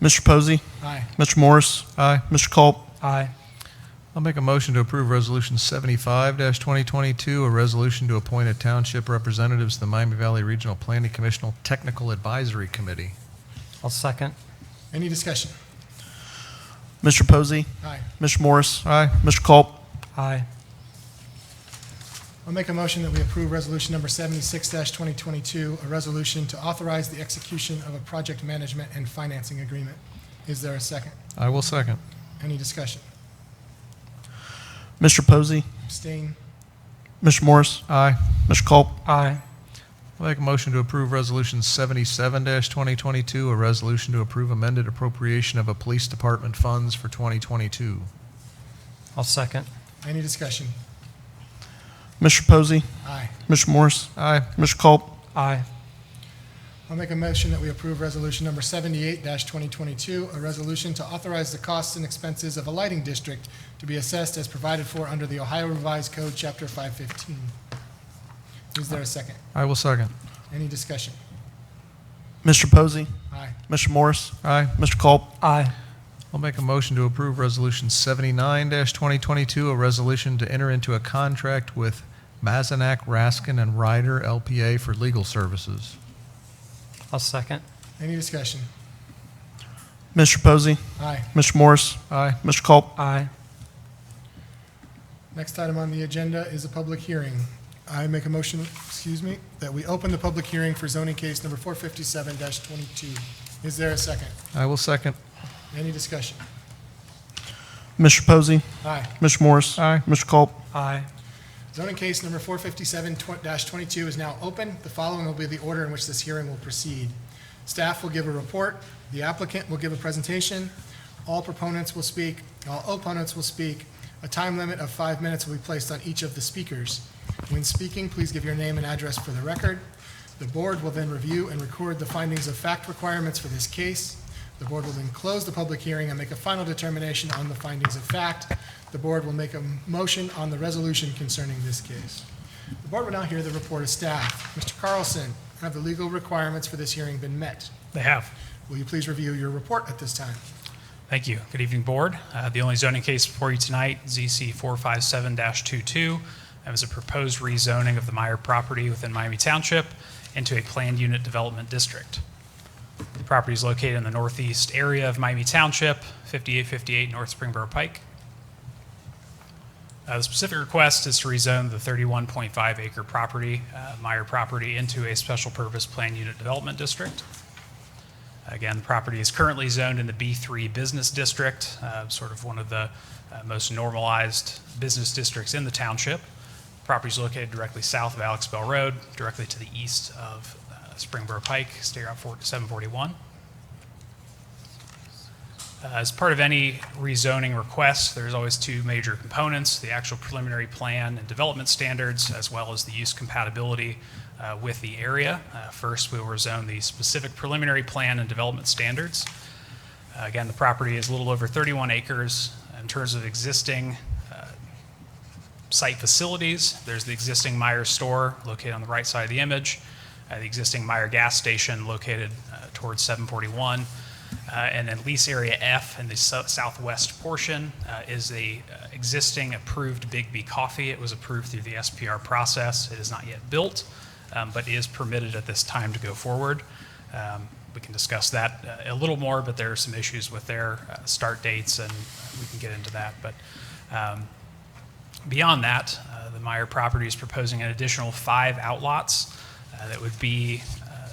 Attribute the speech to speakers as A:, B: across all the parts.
A: Mr. Posey,
B: Aye.
A: Mr. Morris,
C: Aye.
A: Mr. Culp,
B: Aye.
C: I'll make a motion to approve Resolution 75-2022, a resolution to appoint a township representative to the Miami Valley Regional Planning Commissional Technical Advisory Committee.
B: I'll second.
D: Any discussion?
A: Mr. Posey,
D: Aye.
A: Mr. Morris,
C: Aye.
A: Mr. Culp,
B: Aye.
D: I'll make a motion that we approve resolution number seventy-six twenty twenty-two, a resolution to authorize the execution of a project management and financing agreement. Is there a second?
C: I will second.
D: Any discussion?
A: Mr. Posey,
D: Abstain?
A: Mr. Morris,
C: Aye.
A: Mr. Culp,
B: Aye.
C: I'll make a motion to approve Resolution 77-2022, a resolution to approve amended appropriation of a police department funds for 2022.
B: I'll second.
D: Any discussion?
A: Mr. Posey,
D: Aye.
A: Mr. Morris,
C: Aye.
A: Mr. Culp,
B: Aye.
D: I'll make a motion that we approve resolution number seventy-eight twenty twenty-two, a resolution to authorize the costs and expenses of a lighting district to be assessed as provided for under the Ohio Revised Code, Chapter five fifteen. Is there a second?
C: I will second.
D: Any discussion?
A: Mr. Posey,
D: Aye.
A: Mr. Morris,
C: Aye.
A: Mr. Culp,
B: Aye.
C: I'll make a motion to approve Resolution 79-2022, a resolution to enter into a contract with Mazenak, Raskin, and Ryder LPA for legal services.
B: I'll second.
D: Any discussion?
A: Mr. Posey,
D: Aye.
A: Mr. Morris,
C: Aye.
A: Mr. Culp,
B: Aye.
D: Next item on the agenda is a public hearing. I make a motion, excuse me, that we open the public hearing for zoning case number four fifty-seven twenty-two. Is there a second?
C: I will second.
D: Any discussion?
A: Mr. Posey,
D: Aye.
A: Mr. Morris,
C: Aye.
A: Mr. Culp,
B: Aye.
D: Zoning case number four fifty-seven twenty-two is now open. The following will be the order in which this hearing will proceed. Staff will give a report, the applicant will give a presentation, all proponents will speak, all opponents will speak. A time limit of five minutes will be placed on each of the speakers. When speaking, please give your name and address for the record. The board will then review and record the findings of fact requirements for this case. The board will then close the public hearing and make a final determination on the findings of fact. The board will make a motion on the resolution concerning this case. The board will now hear the report of staff. Mr. Carlson, have the legal requirements for this hearing been met?
E: They have.
D: Will you please review your report at this time?
E: Thank you. Good evening, Board. Uh, The only zoning case before you tonight, ZC 457-22, that was a proposed rezoning of the Meyer property within Miami Township into a planned unit development district. The property is located in the northeast area of Miami Township, 5858 North Springboro Pike. Uh, The specific request is to rezone the 31.5 acre property, uh, Meyer property, into a special purpose planned unit development district. Again, the property is currently zoned in the B3 Business District, uh, sort of one of the uh, most normalized business districts in the township. Property is located directly south of Alex Bell Road, directly to the east of uh, Springboro Pike, State Route 4 741. Uh, As part of any rezoning request, there's always two major components, the actual preliminary plan and development standards, as well as the use compatibility uh, with the area. Uh, First, we will rezone the specific preliminary plan and development standards. Uh, Again, the property is a little over 31 acres. In terms of existing uh, site facilities, there's the existing Meyer store located on the right side of the image, uh, the existing Meyer gas station located uh, towards 741, uh, and then lease area F in the so- southwest portion uh, is the uh, existing approved Big B Coffee. It was approved through the SPR process. It is not yet built, um, but is permitted at this time to go forward. Um, We can discuss that uh, a little more, but there are some issues with their uh, start dates, and we can get into that. But um, Beyond that, uh, the Meyer property is proposing an additional five outlots uh, that would be uh,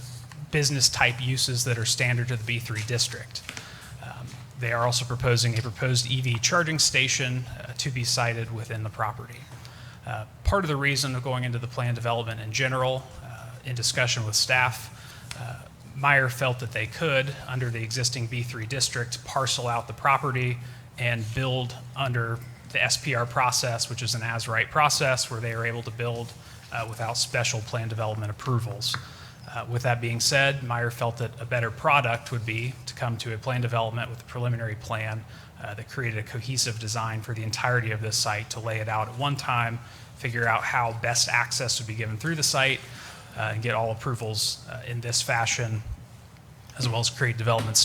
E: business-type uses that are standard to the B3 district. Um, They are also proposing a proposed EV charging station uh, to be sited within the property. Uh, Part of the reason of going into the plan development in general, uh, in discussion with staff, uh, Meyer felt that they could, under the existing B3 district, parcel out the property and build under the SPR process, which is an as-right process where they are able to build uh, without special plan development approvals. Uh, With that being said, Meyer felt that a better product would be to come to a plan development with a preliminary plan uh, that created a cohesive design for the entirety of this site to lay it out at one time, figure out how best access would be given through the site, uh, and get all approvals uh, in this fashion, as well as create development